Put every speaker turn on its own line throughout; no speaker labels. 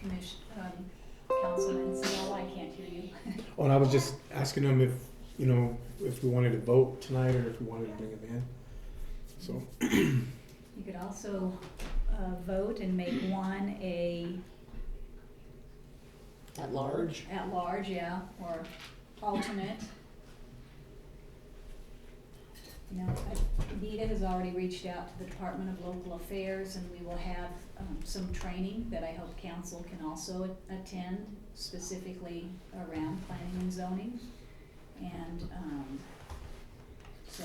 commission, um, Councilman Snell, I can't hear you.
Oh, and I was just asking them if, you know, if we wanted to vote tonight or if we wanted to bring it in. So,
You could also, uh, vote and make one a
At large?
at large, yeah, or alternate. You know, I- Nita has already reached out to the Department of Local Affairs and we will have, um, some training that I hope council can also a- attend specifically around planning and zoning. And, um, so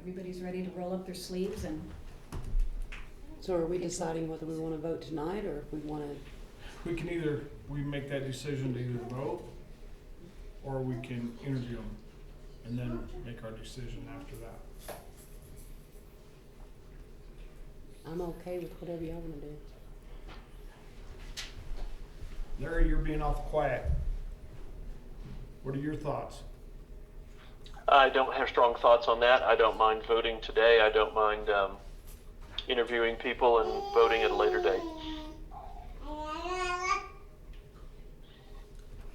everybody's ready to roll up their sleeves and
So are we deciding whether we wanna vote tonight or if we wanna,
We can either, we make that decision to either vote, or we can interview them, and then make our decision after that.
I'm okay with whatever y'all wanna do.
Larry, you're being awful quiet. What are your thoughts?
I don't have strong thoughts on that. I don't mind voting today. I don't mind um, interviewing people and voting at a later date.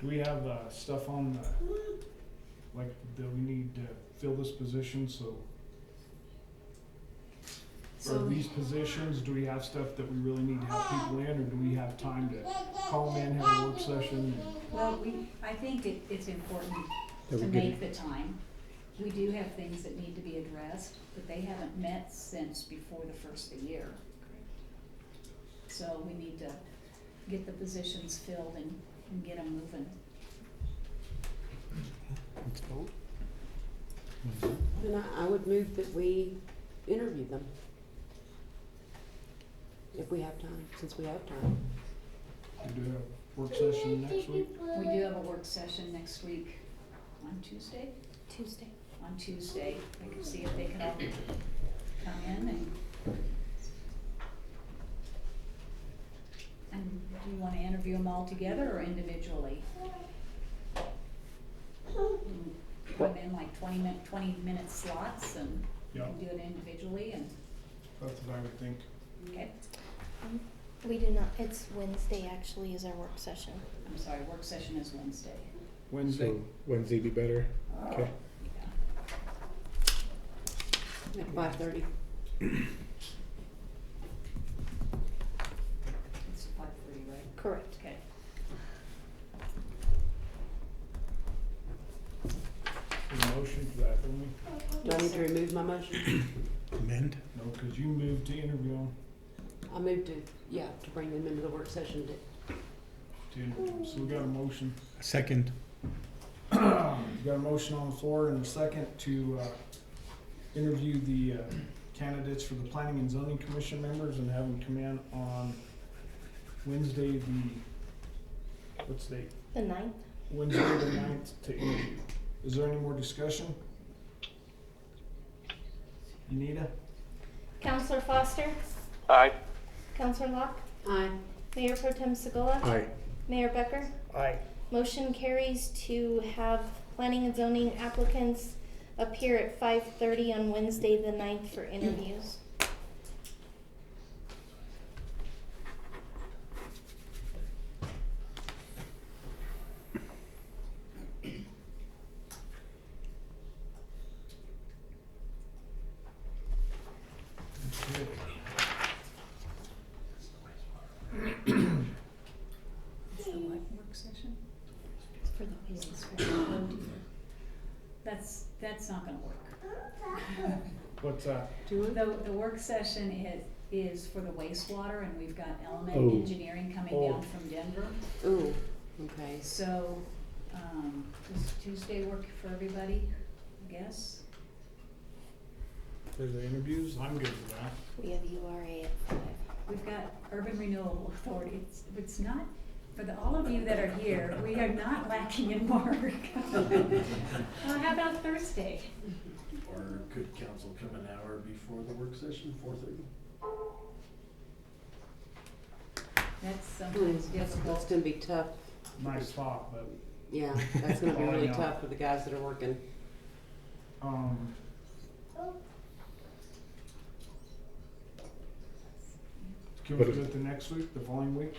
Do we have, uh, stuff on the, like, that we need to fill this position, so,
so.
or these positions, do we have stuff that we really need to have people in, or do we have time to call them in, have a work session?
Well, we, I think it, it's important
That
to
we get
make the time. We do have things that need to be addressed, but they haven't met since before the first of the year. So we need to get the positions filled and, and get them moving.
let's vote.
Then I, I would move that we interview them. If we have time, since we have time.
We do have work session next week?
We do have a work session next week, on Tuesday? Tuesday. On Tuesday, we can see if they can all come in and. And do you wanna interview them all together or individually? Put them in like twenty minute, twenty minute slots and we
Yeah,
can do it individually and,
that's what I would think.
okay,
We do not. It's Wednesday, actually, is our work session.
I'm sorry, work session is Wednesday.
Wednesday,
So Wednesday be better. Okay.
Yeah.
At five thirty.
It's five thirty, right?
Correct.
Okay.
a motion for that, don't we?
Do I need to remove my motion?
Amend?
No, because you moved to interview them,
I move to, yeah, to bring them into the work session to
to interview 'em. so we got a motion.
Second.
Um, We got a motion on the floor and a second to uh, interview the uh, candidates for the Planning and Zoning Commission members and have them come in on Wednesday, the, what's the date?
The ninth?
Wednesday the ninth to interview. Is there any more discussion? Anita?
Counselor Foster?
Aye.
Counselor Locke?
Aye.
Mayor Pro Tem Segula?
Aye.
Mayor Becker?
Aye.
Motion carries to have planning and zoning applicants appear at five thirty on Wednesday, the ninth, for interviews.
It's the what work session? It's for the business. Oh dear. That's, that's not gonna work.
What's that?
Do it.
The, the work session is, is for the wastewater and we've got element
Oh.
engineering coming
Oh.
down from Denver.
Ooh, okay.
So, um, does Tuesday work for everybody, I guess?
For the interviews? I'm good with that.
We have URA at five.
We've got Urban Renewal Authority, it's, it's not, for the, all of you that are here, we are not lacking in work. Uh, how about Thursday?
Or could council come an hour before the work session, four thirty?
That's
Hmm,
sometimes
That's, that's
difficult.
gonna be tough.
Nice thought, but
Yeah, that's gonna be
Oh, I
really
know.
tough for the guys that are working.
Um, Can we
But
do
if-
it the next week, the following week?